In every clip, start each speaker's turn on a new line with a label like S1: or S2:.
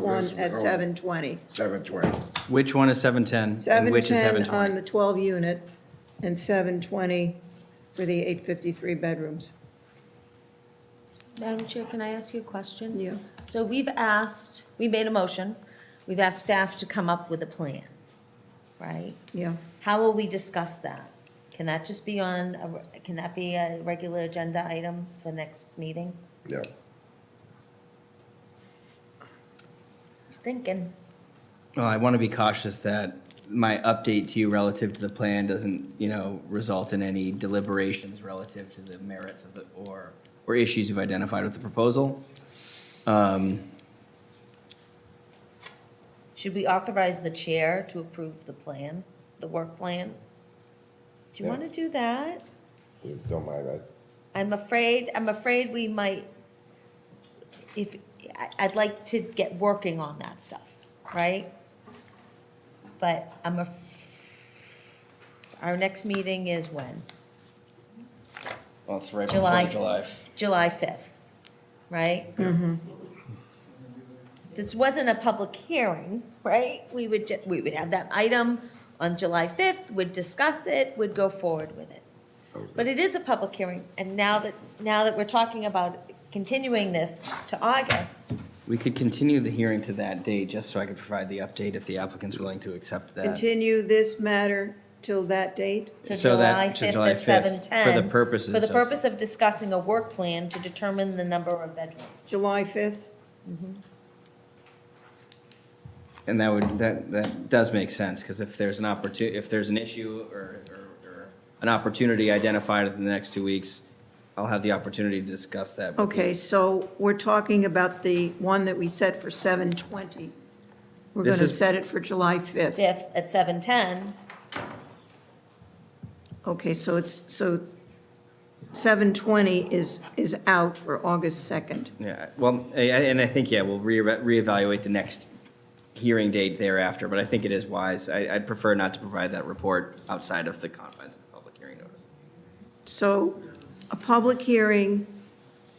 S1: one at
S2: Oh.
S1: 720.
S2: seven twenty.
S3: Which one is 710 and which is
S1: 710 on
S3: 720?
S1: the 12-unit and 720 for the 853 bedrooms.
S4: Madam Chair, can I ask you a question?
S1: Yeah.
S4: So we've asked, we made a motion, we've asked staff to come up with a plan, right?
S1: Yeah.
S4: How will we discuss that? Can that just be on, a- can that be a regular agenda item for next meeting?
S2: Yeah.
S4: I was thinking,
S3: Well, I want to be cautious that my update to you relative to the plan doesn't, you know, result in any deliberations relative to the merits of the, or, or issues you've identified with the proposal. Um,
S4: should we authorize the chair to approve the plan, the work plan? Do you
S2: Yeah.
S4: want to do that?
S2: It Don't mind, I,
S4: I'm afraid, I'm afraid we might, if, I- I'd like to get working on that stuff, right? But I'm a, our next meeting is when?
S3: Well, it's right
S4: July.
S3: before July.
S4: July 5th, right?
S3: Mm-hmm.
S4: This wasn't a public hearing, right? We would, ju- we would have that item on July 5th, would discuss it, would go forward with it. But it is a public hearing, and now that, now that we're talking about continuing this to August,
S3: We could continue the hearing to that date, just so I could provide the update if the applicant's willing to accept that.
S1: Continue this matter till that date?
S4: to
S3: So that-
S4: July
S3: to July
S4: 5th
S3: 5th,
S4: at
S3: for the
S4: 7:10.
S3: purposes
S4: For the
S3: of-
S4: purpose of discussing a work plan to determine the number of bedrooms.
S1: July 5th?
S3: And that would, that, that does make sense, because if there's an opportu, if there's an issue or, or, or an opportunity identified in the next two weeks, I'll have the opportunity to discuss that. with you.
S1: Okay, so we're talking about the one that we set for 720. We're
S3: This
S1: going to
S3: is-
S1: set it for July 5th.
S4: 5th at 7:10,
S1: Okay, so it's, so 720 is, is out for August 2nd.
S3: Yeah, well, I- I- and I think, yeah, we'll re- reevaluate the next hearing date thereafter, but I think it is wise. I, I'd prefer not to provide that report outside of the confines of the public hearing notice.
S1: So a public hearing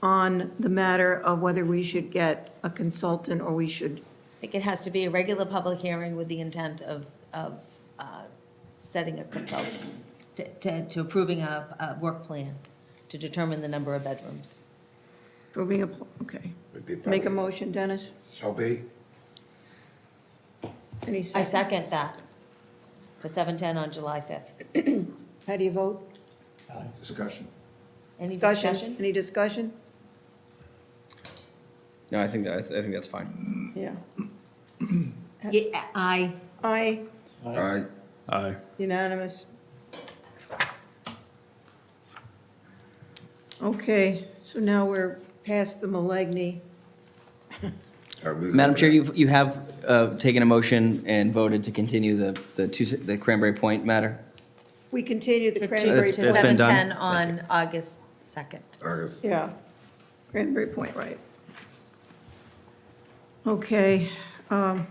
S1: on the matter of whether we should get a consultant or we should,
S4: I think it has to be a regular public hearing with the intent of, of uh, setting a consultant, to- to, to approving a, a work plan to determine the number of bedrooms.
S1: approving a, pl- okay.
S2: Would be
S1: Make a
S2: public.
S1: motion, Dennis?
S2: so be,
S1: Any
S4: I
S1: second?
S4: second that for 7:10 on July 5th.
S1: How do you vote?
S2: discussion.
S4: Any discussion?
S1: Any discussion?
S3: No, I think that, I th- I think that's fine.
S1: Yeah.
S4: Yeah, I,
S1: Aye,
S2: Aye,
S5: Aye.
S1: unanimous. Okay, so now we're past the Milagney.
S2: I move
S3: Madam Chair,
S2: that.
S3: you've, you have, uh, taken a motion and voted to continue the, the two, the Cranberry Point matter?
S1: We continue
S4: to
S1: the Cranberry
S3: It's- it's
S1: Point.
S3: been done.
S4: 7:10 on August 2nd.
S2: August,
S1: Yeah, Cranberry Point, right. Okay, um,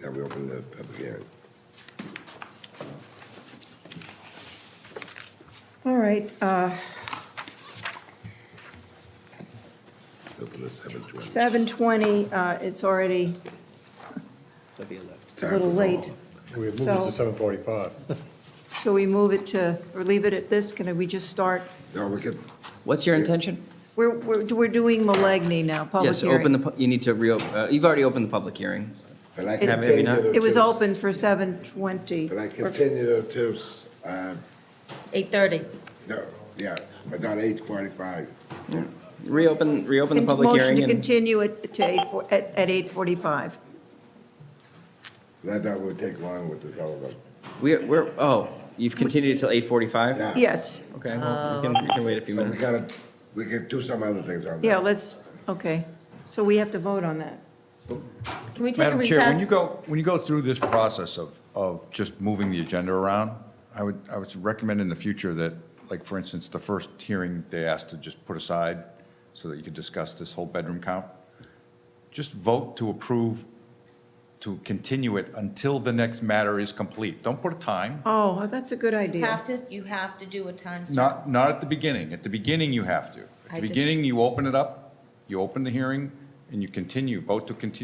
S2: now we open the public hearing.
S1: all right, uh,
S2: Open at seven twenty.
S1: 7:20, uh, it's already
S3: That'd be a lift.
S1: a little late.
S5: We have
S1: So-
S5: moved to seven forty-five.
S1: Shall we move it to, or leave it at this? Can we just start?
S2: No, we can,
S3: What's your intention?
S1: We're, we're we're doing Milagney now, public
S3: Yes, open the,
S1: hearing.
S3: pu- you need to reopen, uh, you've already opened the public hearing.
S2: but I
S1: It- Have-
S3: have you
S2: continue
S3: not?
S2: to.
S1: It was open for 7:20.
S2: But I
S1: Or-
S2: continue to, uh,
S4: 8:30.
S2: no, yeah, but not eight forty-five.
S3: Reopen, reopen the public
S1: Motion
S3: hearing
S1: to
S3: and,
S1: continue it to 8, fo- at at 8:45.
S2: That, that would take long with the telephone.
S3: we, we're, oh, you've continued till eight forty-five?
S2: Yeah.
S1: Yes,
S3: Okay, well, we can, we can wait a few
S2: But we
S3: minutes.
S2: gotta, we could do some other things on that.
S1: yeah, let's, okay. So we have to vote on that.
S4: Can we take a
S6: Madam Chair, when you
S4: recess?
S6: go, when you go through this process of, of just moving the agenda around, I would, I would recommend in the future that, like, for instance, the first hearing they asked to just put aside so that you could discuss this whole bedroom count, just vote to approve, to continue it until the next matter is complete. Don't put a time,
S1: Oh, that's a good
S4: You
S1: idea.
S4: have to, you have to do a time certain.
S6: not, not at the beginning. At the beginning, you have to.
S4: I
S6: At the
S4: just-
S6: beginning, you open it up, you open the hearing, and you continue, vote to continue